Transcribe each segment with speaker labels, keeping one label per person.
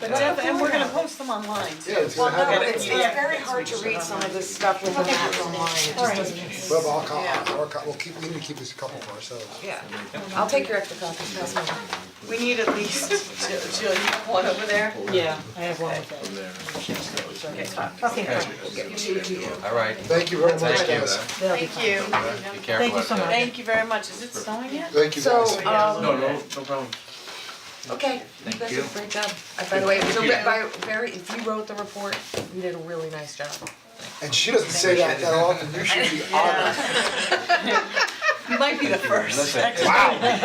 Speaker 1: But def- and we're gonna post them online.
Speaker 2: Yeah, it's gonna
Speaker 1: Well,
Speaker 2: have,
Speaker 1: no,
Speaker 2: it.
Speaker 1: it's- it's
Speaker 3: very hard to read some of this stuff with the maps online, it just doesn't make sense.
Speaker 2: we'll have all co- all co- we'll keep, we need to keep this a couple for ourselves.
Speaker 3: Yeah, I'll take your extra copy, pass me one.
Speaker 1: We need at least, Jill, Jill, you have one over there?
Speaker 3: Yeah, I have one with it. Okay,
Speaker 4: Alright,
Speaker 2: Thank you very much, guys.
Speaker 4: thank you,
Speaker 3: that'll be
Speaker 1: Thank you,
Speaker 4: be careful out there.
Speaker 1: thank you very much, is it snowing yet?
Speaker 2: Thank you,
Speaker 3: So,
Speaker 2: guys.
Speaker 1: uh,
Speaker 3: um,
Speaker 5: No, no, no problem.
Speaker 3: okay, you guys did a great job. Uh, By the way, it was a re- by, very, if you wrote the report, you did a really nice job.
Speaker 2: And she doesn't say that that often, you should be honored.
Speaker 1: You might be the first.
Speaker 4: Listen, wow, it's got a lot,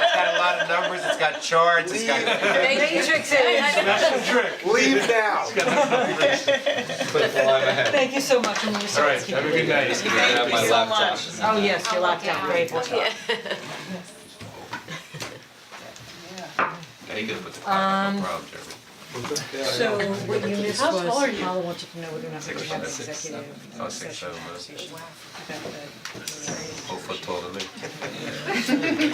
Speaker 4: it's got a lot of numbers, it's got charts, it's got.
Speaker 3: Matrix it is.
Speaker 2: Leave now.
Speaker 3: Thank you so much, and you
Speaker 5: All right, have a good night.
Speaker 4: Thank
Speaker 1: you so much.
Speaker 3: Oh, yes, your lockdown, great.
Speaker 4: Yeah, you could put the clock
Speaker 1: Um,
Speaker 4: on, no problem, Jeremy.
Speaker 3: So what you missed
Speaker 1: How tall are
Speaker 3: was,
Speaker 1: you?
Speaker 3: Paula wanted to know whether or not we
Speaker 4: Six
Speaker 3: could have
Speaker 4: foot
Speaker 3: an
Speaker 4: six,
Speaker 3: executive
Speaker 4: seven, oh, six,
Speaker 3: session
Speaker 4: seven, uh,
Speaker 3: conversation.
Speaker 4: four foot taller than me.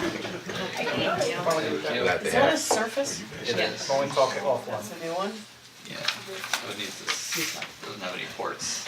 Speaker 1: Is that a surface?
Speaker 4: It is.
Speaker 5: Only talk offline.
Speaker 1: That's a new one.
Speaker 4: Yeah, it needs this, doesn't have any ports.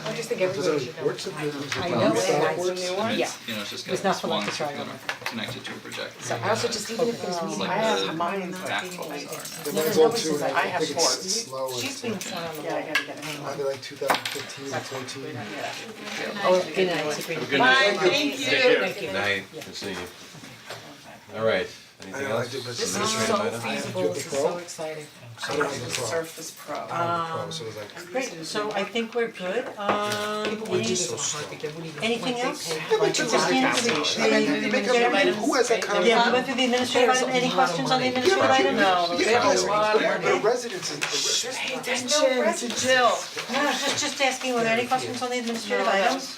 Speaker 3: I just think everybody should know.
Speaker 2: What's the business
Speaker 3: I
Speaker 2: about
Speaker 3: know
Speaker 2: this
Speaker 3: it, I
Speaker 2: outwards?
Speaker 3: see new one.
Speaker 4: And
Speaker 3: Yeah.
Speaker 4: it's, you know, it's just
Speaker 3: It's
Speaker 4: got
Speaker 3: not
Speaker 4: this
Speaker 3: for like
Speaker 4: one
Speaker 3: to try
Speaker 4: computer connected to a projector.
Speaker 3: So I also just, even if there's meetings,
Speaker 4: Like
Speaker 3: I have
Speaker 4: the
Speaker 3: mine.
Speaker 4: backhoes are now.
Speaker 2: The mine's
Speaker 3: Yeah,
Speaker 2: old
Speaker 3: that
Speaker 2: too,
Speaker 3: was
Speaker 2: and I
Speaker 1: have
Speaker 2: think
Speaker 1: four.
Speaker 2: it's slow,
Speaker 3: She's
Speaker 2: it's
Speaker 3: been
Speaker 2: like,
Speaker 3: sent on the
Speaker 1: Yeah, I
Speaker 3: wall.
Speaker 1: gotta get a hang on.
Speaker 2: might be like two thousand fifteen or fourteen.
Speaker 3: Oh, good night, it's a great.
Speaker 5: Good
Speaker 1: Bye,
Speaker 5: night.
Speaker 1: thank
Speaker 5: Take
Speaker 1: you.
Speaker 5: care.
Speaker 4: Good night, good seeing you. Alright,
Speaker 2: I
Speaker 4: anything
Speaker 2: know, I
Speaker 4: else?
Speaker 2: did, but
Speaker 3: This
Speaker 2: it's
Speaker 3: is
Speaker 2: administrative
Speaker 3: so
Speaker 2: item.
Speaker 3: feasible, this is so exciting.
Speaker 2: I don't have the pro,
Speaker 1: Surface Pro.
Speaker 2: I don't have the pro, so it's like,
Speaker 6: Great, so I think we're good, um,
Speaker 2: we're just
Speaker 6: and
Speaker 2: so slow.
Speaker 6: anything else?
Speaker 2: You make up your mind, who has that kind of?
Speaker 6: Yeah, we went through the administrative item, any questions on the
Speaker 2: Yeah,
Speaker 6: administrative
Speaker 2: but you-
Speaker 6: item?
Speaker 1: No,
Speaker 2: yeah,
Speaker 1: they have a
Speaker 2: that's-
Speaker 1: lot of
Speaker 2: yeah, but
Speaker 1: money.
Speaker 2: residents is- there's not-
Speaker 1: Attention to Jill.
Speaker 6: No, I was just, just asking, were there any questions on the administrative items?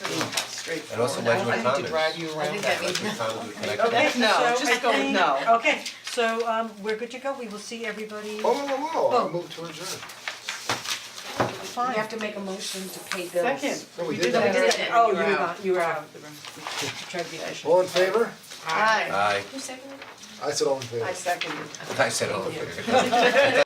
Speaker 1: Straightforward.
Speaker 4: I'd also like my comments.
Speaker 3: you around. I think that means.
Speaker 1: Okay, no,
Speaker 6: So I
Speaker 1: just go with
Speaker 6: think-
Speaker 1: no.
Speaker 6: Okay, so, um, we're good to go, we will see everybody,
Speaker 2: Oh, whoa, whoa, whoa,
Speaker 6: Oh.
Speaker 2: I moved to adjourn.
Speaker 3: We
Speaker 6: fine.
Speaker 3: have to make a motion to pay bills.
Speaker 1: Second.
Speaker 2: No, we
Speaker 1: We
Speaker 2: did
Speaker 1: did
Speaker 2: that.
Speaker 1: that.
Speaker 3: did
Speaker 6: Oh, you were
Speaker 1: out.
Speaker 6: not, you were out,
Speaker 3: Try to be efficient.
Speaker 2: All in favor?
Speaker 1: Aye.
Speaker 4: Aye,
Speaker 2: I said all in favor.
Speaker 1: I second it.
Speaker 4: I said all of it.